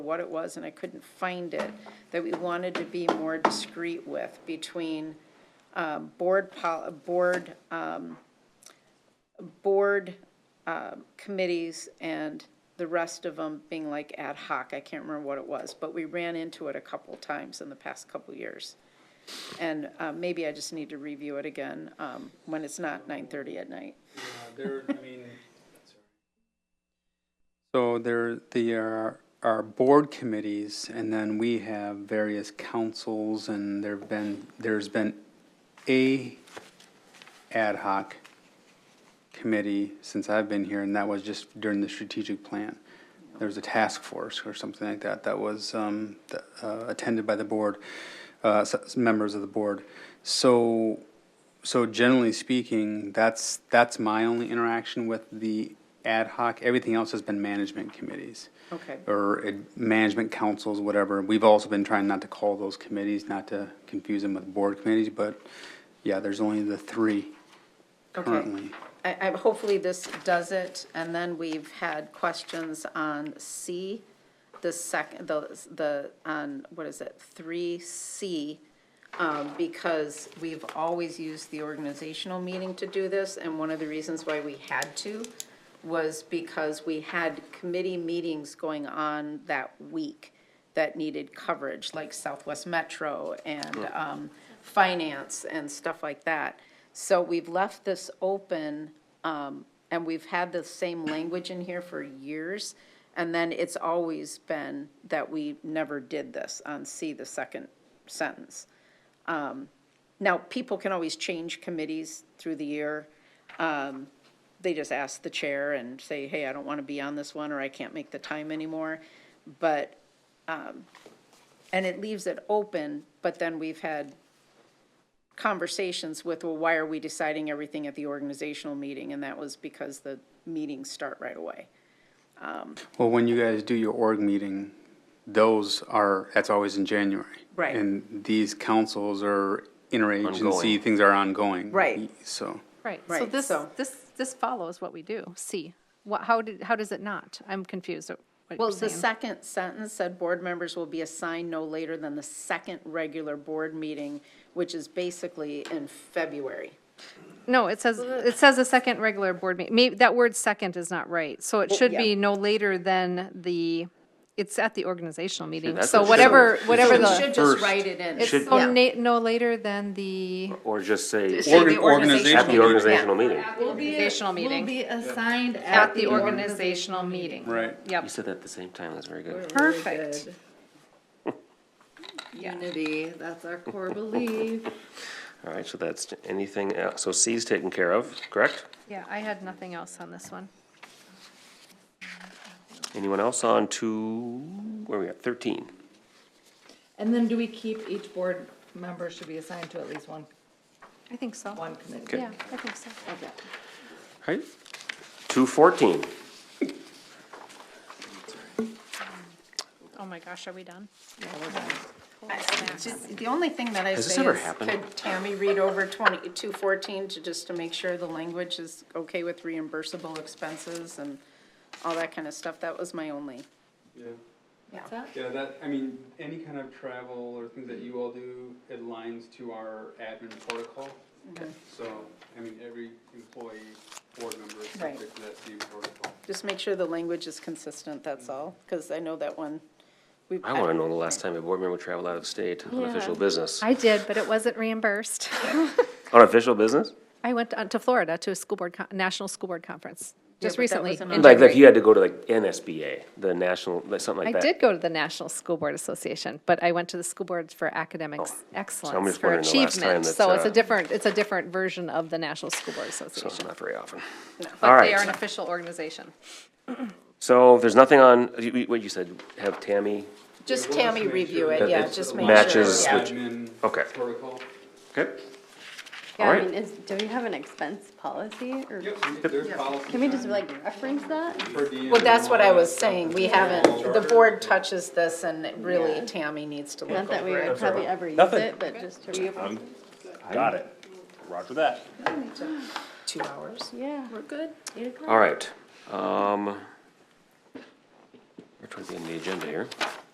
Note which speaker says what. Speaker 1: what it was, and I couldn't find it, that we wanted to be more discreet with between uh, board, pol- board, um, board um, committees and the rest of them being like ad hoc. I can't remember what it was, but we ran into it a couple times in the past couple years. And uh, maybe I just need to review it again um, when it's not 9:30 at night.
Speaker 2: Yeah, Uh, there, I mean. So there, there are, are board committees, and then we have various councils, and there've been, there's been a ad hoc committee since I've been here, and that was just during the strategic plan. There was a task force or something like that that was um, th- uh, attended by the board, uh, s- s- members of the board. So, so generally speaking, that's, that's my only interaction with the ad hoc. Everything else has been management committees
Speaker 1: Okay.
Speaker 2: or uh, management councils, whatever. We've also been trying not to call those committees, not to confuse them with board committees, but yeah, there's only the three
Speaker 1: Okay.
Speaker 2: currently.
Speaker 1: I, I, hopefully this does it, and then we've had questions on C, the second, the, the, on, what is it, three C, um, because we've always used the organizational meeting to do this, and one of the reasons why we had to was because we had committee meetings going on that week that needed coverage, like Southwest Metro and um, finance and stuff like that. So we've left this open, um, and we've had the same language in here for years. And then it's always been that we never did this on C, the second sentence. Um, Now, people can always change committees through the year. Um, They just ask the chair and say, hey, I don't want to be on this one, or I can't make the time anymore. But and it leaves it open, but then we've had conversations with, well, why are we deciding everything at the organizational meeting? And that was because the meetings start right away.
Speaker 2: Well, when you guys do your org meeting, those are, that's always in January.
Speaker 1: Right.
Speaker 2: And these councils are
Speaker 3: Ongoing.
Speaker 2: interagency, things are ongoing.
Speaker 1: Right.
Speaker 2: So,
Speaker 4: Right, so
Speaker 1: Right,
Speaker 4: this,
Speaker 1: so-
Speaker 4: this, this follows what we do, C. What, how did, how does it not? I'm confused at what
Speaker 1: Well,
Speaker 4: you're
Speaker 1: the
Speaker 4: saying.
Speaker 1: second sentence said, board members will be assigned no later than the second regular board meeting, which is basically in February.
Speaker 4: No, it says, it says a second regular board meeting. Maybe, that word second is not right. So it should
Speaker 1: yeah.
Speaker 4: be no later than the, it's at the organizational meeting.
Speaker 3: that's
Speaker 4: So
Speaker 3: what it
Speaker 4: whatever,
Speaker 3: should-
Speaker 4: whatever
Speaker 1: We
Speaker 3: it
Speaker 4: the,
Speaker 1: should just
Speaker 3: first-
Speaker 1: write it in.
Speaker 4: it's
Speaker 3: should-
Speaker 4: so
Speaker 3: Yeah.
Speaker 4: na- no later than the
Speaker 3: Or just say,
Speaker 1: Should
Speaker 2: Organ-
Speaker 1: the
Speaker 3: at
Speaker 2: organizational
Speaker 3: the organizational meeting.
Speaker 4: organizational
Speaker 5: Will
Speaker 4: meeting.
Speaker 5: be assigned
Speaker 4: At the organizational meeting.
Speaker 2: Right.
Speaker 3: You
Speaker 4: Yep,
Speaker 3: said that at the same time, that's very good.
Speaker 4: perfect.
Speaker 5: Unity, that's our core belief.
Speaker 4: Mm-hmm.
Speaker 3: All right, so that's anything, else. so C's taken care of, correct?
Speaker 4: Yeah, I had nothing else on this one.
Speaker 3: Anyone else on two, where are we at, thirteen?
Speaker 5: And then do we keep each board member should be assigned to at least one,
Speaker 4: I think so.
Speaker 5: one committee?
Speaker 3: Okay.
Speaker 4: Yeah, I think so.
Speaker 3: All right. Two fourteen.
Speaker 4: Oh my gosh, are we done?
Speaker 1: Just- The only thing that I
Speaker 3: Has this
Speaker 1: say
Speaker 3: ever
Speaker 1: is,
Speaker 3: happened?
Speaker 1: could Tammy read over 2214 to, just to make sure the language is okay with reimbursable expenses and all that kind of stuff? That was my only.
Speaker 2: Yeah, that, I mean, any kind of travel or things that you all do aligns to our admin protocol.
Speaker 1: Mm-hmm.
Speaker 2: So, I mean, every employee, board member is
Speaker 1: Right.
Speaker 2: subject to that same protocol.
Speaker 1: Just make sure the language is consistent, that's all, because I know that one, we.
Speaker 3: I wanna know the last time a board member traveled out of state on official
Speaker 4: Yeah.
Speaker 3: business.
Speaker 4: I did, but it wasn't reimbursed.
Speaker 3: On official business?
Speaker 4: I went on to Florida to a school board, con- national school board conference,
Speaker 1: but
Speaker 4: just
Speaker 1: that
Speaker 4: recently.
Speaker 1: wasn't
Speaker 4: in
Speaker 1: on-
Speaker 3: Like, like
Speaker 4: January.
Speaker 3: you had to go to like NSBA, the national, like something
Speaker 4: I
Speaker 3: like that.
Speaker 4: did go to the National School Board Association, but I went to the School Board for
Speaker 3: Oh,
Speaker 4: Academics Excellence,
Speaker 3: just
Speaker 4: for
Speaker 3: wondering the last time
Speaker 4: achievement.
Speaker 3: that,
Speaker 4: So it's
Speaker 3: uh,
Speaker 4: a different, it's a different version of the National School Board
Speaker 3: So it's
Speaker 4: Association.
Speaker 3: not very often. All
Speaker 4: But they
Speaker 3: right.
Speaker 4: are an official organization.
Speaker 3: So there's nothing on, you- you- what you said, have Tammy,
Speaker 1: Just Tammy review
Speaker 3: that
Speaker 1: it, yeah,
Speaker 3: it
Speaker 1: just make sure.
Speaker 3: matches
Speaker 1: yeah.
Speaker 3: with-
Speaker 2: Admin
Speaker 3: Okay.
Speaker 2: protocol.
Speaker 3: okay?
Speaker 6: Yeah,
Speaker 3: All
Speaker 6: I
Speaker 3: right.
Speaker 6: mean, is, do we have an expense policy or
Speaker 2: Yep, so there's policies.
Speaker 6: can we just like reference that?
Speaker 2: per diem
Speaker 1: Well, that's
Speaker 2: and
Speaker 1: what
Speaker 2: all
Speaker 1: I
Speaker 2: that
Speaker 1: was
Speaker 2: stuff.
Speaker 1: saying, we haven't, the board touches this and really Tammy needs to
Speaker 6: Not
Speaker 1: look
Speaker 6: that we
Speaker 1: over it.
Speaker 6: would probably ever use
Speaker 3: Nothing.
Speaker 6: it, but just to reapply.
Speaker 3: Got it. Roger that.
Speaker 1: Two hours?
Speaker 6: Yeah. We're good. Eight o'clock.
Speaker 3: All right, um, We're trying to be in the agenda here.